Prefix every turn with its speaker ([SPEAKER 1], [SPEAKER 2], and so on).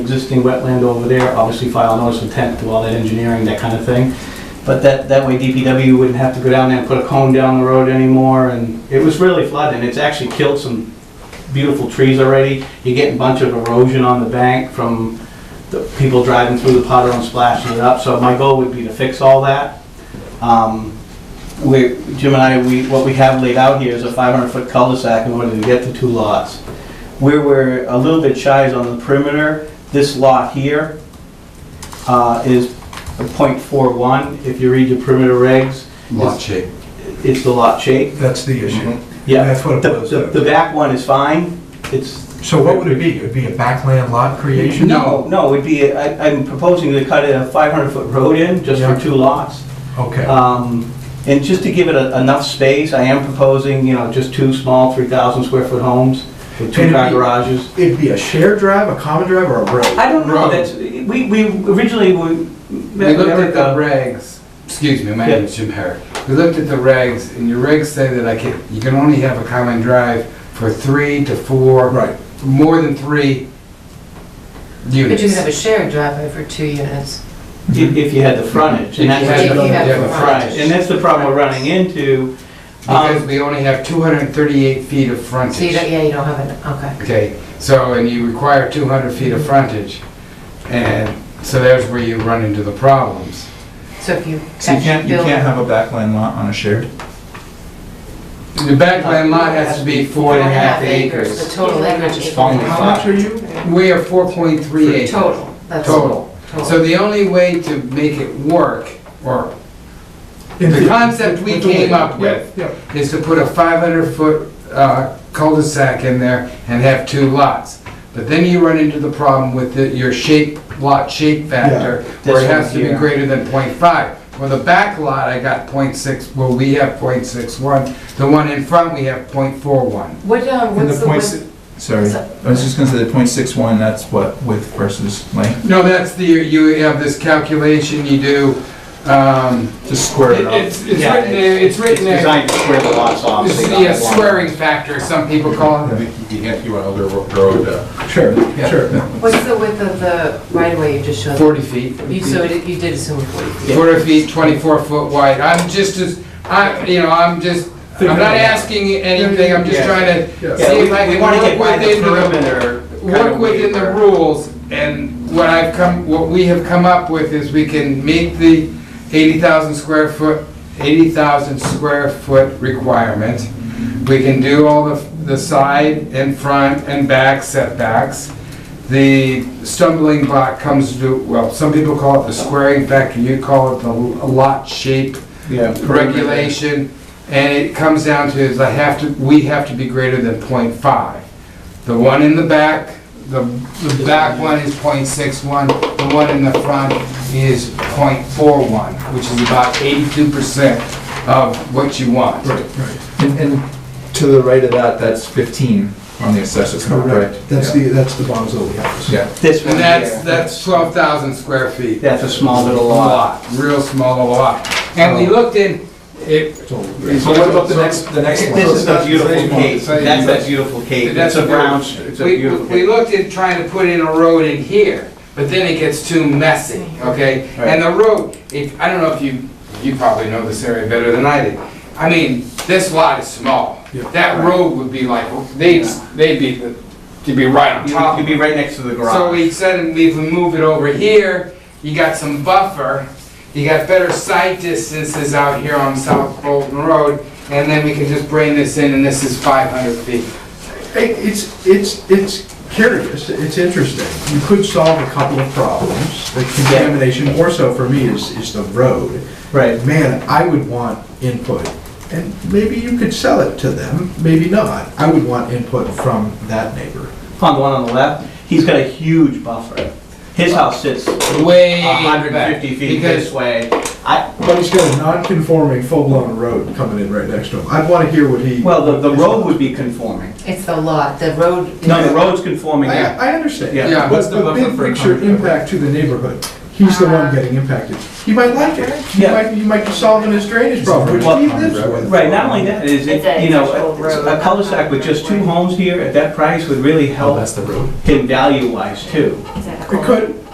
[SPEAKER 1] existing wetland over there, obviously file notice of intent, do all that engineering, that kind of thing. But that, that way DPW wouldn't have to go down there and put a cone down the road anymore, and it was really flooding, it's actually killed some beautiful trees already. You're getting a bunch of erosion on the bank from the people driving through the puddle and splashing it up, so my goal would be to fix all that. Um, we, Jim and I, we, what we have laid out here is a 500-foot cul-de-sac in order to get the two lots. Where we're a little bit shy is on the perimeter. This lot here uh, is a .41. If you read your perimeter regs,
[SPEAKER 2] lot shape.
[SPEAKER 1] it's the lot shape.
[SPEAKER 3] That's the issue.
[SPEAKER 1] Yeah,
[SPEAKER 3] That's what it
[SPEAKER 1] the,
[SPEAKER 3] was. uh,
[SPEAKER 1] the the back one is fine. It's,
[SPEAKER 3] So what would it be? It'd be a backland lot creation?
[SPEAKER 1] no, no, it'd be, I- I'm proposing to cut a 500-foot road in just
[SPEAKER 3] Yeah.
[SPEAKER 1] for two lots.
[SPEAKER 3] Okay,
[SPEAKER 1] Um, And just to give it a- enough space, I am proposing, you know, just two small 3,000 scar foot homes with two
[SPEAKER 3] And
[SPEAKER 1] car
[SPEAKER 3] we-
[SPEAKER 1] garages.
[SPEAKER 3] it'd be a shared drive, a common drive, or a road?
[SPEAKER 1] I don't know,
[SPEAKER 2] Road.
[SPEAKER 1] that's, we, we originally, we.
[SPEAKER 2] We looked at the regs, excuse me, my
[SPEAKER 1] Yeah.
[SPEAKER 2] name's Jim Herrick. We looked at the regs, and your regs say that I can, you can only have a common drive for three to four.
[SPEAKER 3] Right.
[SPEAKER 2] More than three
[SPEAKER 4] But
[SPEAKER 2] units.
[SPEAKER 4] you can have a shared driveway for two units.
[SPEAKER 1] If, if you had the frontage, and that's.
[SPEAKER 4] If you had the
[SPEAKER 2] Yeah, but
[SPEAKER 4] frontage.
[SPEAKER 1] And that's the problem we're running into.
[SPEAKER 2] Because
[SPEAKER 1] Um,
[SPEAKER 2] we only have two hundred and thirty-eight feet of
[SPEAKER 4] So you don't,
[SPEAKER 2] frontage.
[SPEAKER 4] yeah, you don't have an, okay.
[SPEAKER 2] Okay, so, and you require two hundred feet of frontage, and so there's where you run into the problems.
[SPEAKER 4] So if you
[SPEAKER 5] So you
[SPEAKER 4] actually
[SPEAKER 5] can't, you
[SPEAKER 4] build.
[SPEAKER 5] can't have a backland lot on a shared?
[SPEAKER 2] The backland lot has to be four and a half
[SPEAKER 4] The
[SPEAKER 2] acres.
[SPEAKER 4] total acreage is four
[SPEAKER 2] Only
[SPEAKER 4] and a
[SPEAKER 2] five.
[SPEAKER 4] half.
[SPEAKER 3] How much are you?
[SPEAKER 2] We are four point three acres.
[SPEAKER 4] Total, that's.
[SPEAKER 2] Total. So the only way to make it work, or the concept we came up with,
[SPEAKER 3] Yeah,
[SPEAKER 2] is to put a 500-foot uh, cul-de-sac in there and have two lots. But then you run into the problem with the- your shape, lot shape factor,
[SPEAKER 1] Yeah,
[SPEAKER 2] where it
[SPEAKER 1] this
[SPEAKER 2] has to
[SPEAKER 1] one
[SPEAKER 2] be
[SPEAKER 1] here.
[SPEAKER 2] greater than .5. Well, the back lot, I got .6, well, we have .61. The one in front, we have .41.
[SPEAKER 4] What, uh,
[SPEAKER 5] And
[SPEAKER 4] what's
[SPEAKER 5] the
[SPEAKER 4] the,
[SPEAKER 5] point,
[SPEAKER 4] width-
[SPEAKER 5] si- sorry,
[SPEAKER 4] is that-
[SPEAKER 5] I was just gonna say the point six one, that's what width versus length,
[SPEAKER 2] No, that's the, you have this calculation you do, um,
[SPEAKER 5] just square it up.
[SPEAKER 2] It's, it's written there, it's written there,
[SPEAKER 1] Designed to square the lots off.
[SPEAKER 2] it's
[SPEAKER 1] so
[SPEAKER 2] the
[SPEAKER 1] you
[SPEAKER 2] uh,
[SPEAKER 1] got one.
[SPEAKER 2] swearing factor, some people call it.
[SPEAKER 6] You can't, you want to road, uh,
[SPEAKER 5] Sure,
[SPEAKER 2] Yeah.
[SPEAKER 5] sure.
[SPEAKER 4] what's the width of the right of way you just showed?
[SPEAKER 2] Forty feet.
[SPEAKER 4] You, so it- you did assume forty feet.
[SPEAKER 2] Forty feet, twenty-four foot wide, I'm just as, I, you know, I'm just, I'm not asking anything, I'm just
[SPEAKER 1] Yeah.
[SPEAKER 2] trying to see
[SPEAKER 3] Yeah.
[SPEAKER 1] Yeah, we,
[SPEAKER 2] if I
[SPEAKER 1] we wanna
[SPEAKER 2] can
[SPEAKER 1] get
[SPEAKER 2] work
[SPEAKER 1] by the
[SPEAKER 2] within the
[SPEAKER 1] perimeter.
[SPEAKER 2] work within the rules, and what I've come, what we have come up with is we can meet the eighty thousand square foot, eighty thousand square foot requirement. We can do all the, the side and front and back setbacks. The stumbling block comes to, well, some people call it the squaring factor, you call it the lot shape
[SPEAKER 5] Yeah.
[SPEAKER 2] regulation, and it comes down to is I have to, we have to be greater than .5. The one in the back, the, the back one is .61. the one in the front is .41, which is about eighty-two percent of what you want.
[SPEAKER 5] And, and to the right of that, that's fifteen on the assessor's map, right?
[SPEAKER 3] correct. That's the, that's the Bonzoli house.
[SPEAKER 5] Yeah,
[SPEAKER 1] This one
[SPEAKER 2] And that's,
[SPEAKER 1] here,
[SPEAKER 2] that's twelve thousand square feet.
[SPEAKER 1] that's a small little lot.
[SPEAKER 2] Real small lot. And we looked in, it,
[SPEAKER 3] It's all-
[SPEAKER 5] so what about the next, the next one?
[SPEAKER 1] This is a beautiful
[SPEAKER 2] Same one,
[SPEAKER 1] cave,
[SPEAKER 2] same
[SPEAKER 1] that's
[SPEAKER 2] one.
[SPEAKER 1] that beautiful cave,
[SPEAKER 2] That's
[SPEAKER 1] that's a
[SPEAKER 2] a
[SPEAKER 1] brown,
[SPEAKER 2] beautiful-
[SPEAKER 1] it's a
[SPEAKER 2] We,
[SPEAKER 1] beautiful
[SPEAKER 2] we
[SPEAKER 1] cave.
[SPEAKER 2] looked at trying to put in a road in here, but then it gets too messy, okay? And the road, if, I don't know if you, you probably know this area better than I did. I mean, this lot is small.
[SPEAKER 3] Yeah.
[SPEAKER 2] That road would be like, they'd, they'd be, the- to be right on
[SPEAKER 1] You-
[SPEAKER 2] top.
[SPEAKER 1] You'd
[SPEAKER 2] of
[SPEAKER 1] be right next to the
[SPEAKER 2] it. So
[SPEAKER 1] garage.
[SPEAKER 2] we said, we can move it over here, you got some buffer, you got better sight distances out here on South Bolton Road, and then we can just bring this in, and this is five hundred feet.
[SPEAKER 3] Hey, It's, it's, it's curious, it's interesting. You could solve a couple of problems. The contamination, more so for me, is, is the road.
[SPEAKER 1] Right.
[SPEAKER 3] Man, I would want input, and maybe you could sell it to them, maybe not. I would want input from that neighbor.
[SPEAKER 1] On the one on the left, he's got a huge buffer. His house sits
[SPEAKER 2] way
[SPEAKER 1] hundred and
[SPEAKER 2] back,
[SPEAKER 1] fifty feet
[SPEAKER 2] because
[SPEAKER 1] this way. I,
[SPEAKER 3] But he's got a non-conforming, full-blown road coming in right next to him. I'd want to hear what he.
[SPEAKER 1] well, the, the road would be conforming.
[SPEAKER 4] It's the lot, the road. is-
[SPEAKER 1] No, the road's conforming,
[SPEAKER 3] I,
[SPEAKER 1] yeah.
[SPEAKER 3] I understand.
[SPEAKER 1] Yeah.
[SPEAKER 2] Yeah.
[SPEAKER 3] But
[SPEAKER 5] What's the
[SPEAKER 3] the
[SPEAKER 5] buffer
[SPEAKER 3] big
[SPEAKER 5] for
[SPEAKER 3] picture
[SPEAKER 5] coming over?
[SPEAKER 3] impact to the neighborhood. he's the one getting impacted. He might like it. He
[SPEAKER 1] Yeah.
[SPEAKER 3] might, he might be solving his drainage problem, which he lives with.
[SPEAKER 1] Right, not only that, is it,
[SPEAKER 7] It's a
[SPEAKER 1] you know,
[SPEAKER 7] actual road.
[SPEAKER 1] a cul-de-sac with just two homes here at that price would really
[SPEAKER 5] Oh,
[SPEAKER 1] help
[SPEAKER 5] that's the road.
[SPEAKER 1] him value-wise too.
[SPEAKER 7] Exactly.
[SPEAKER 3] It could,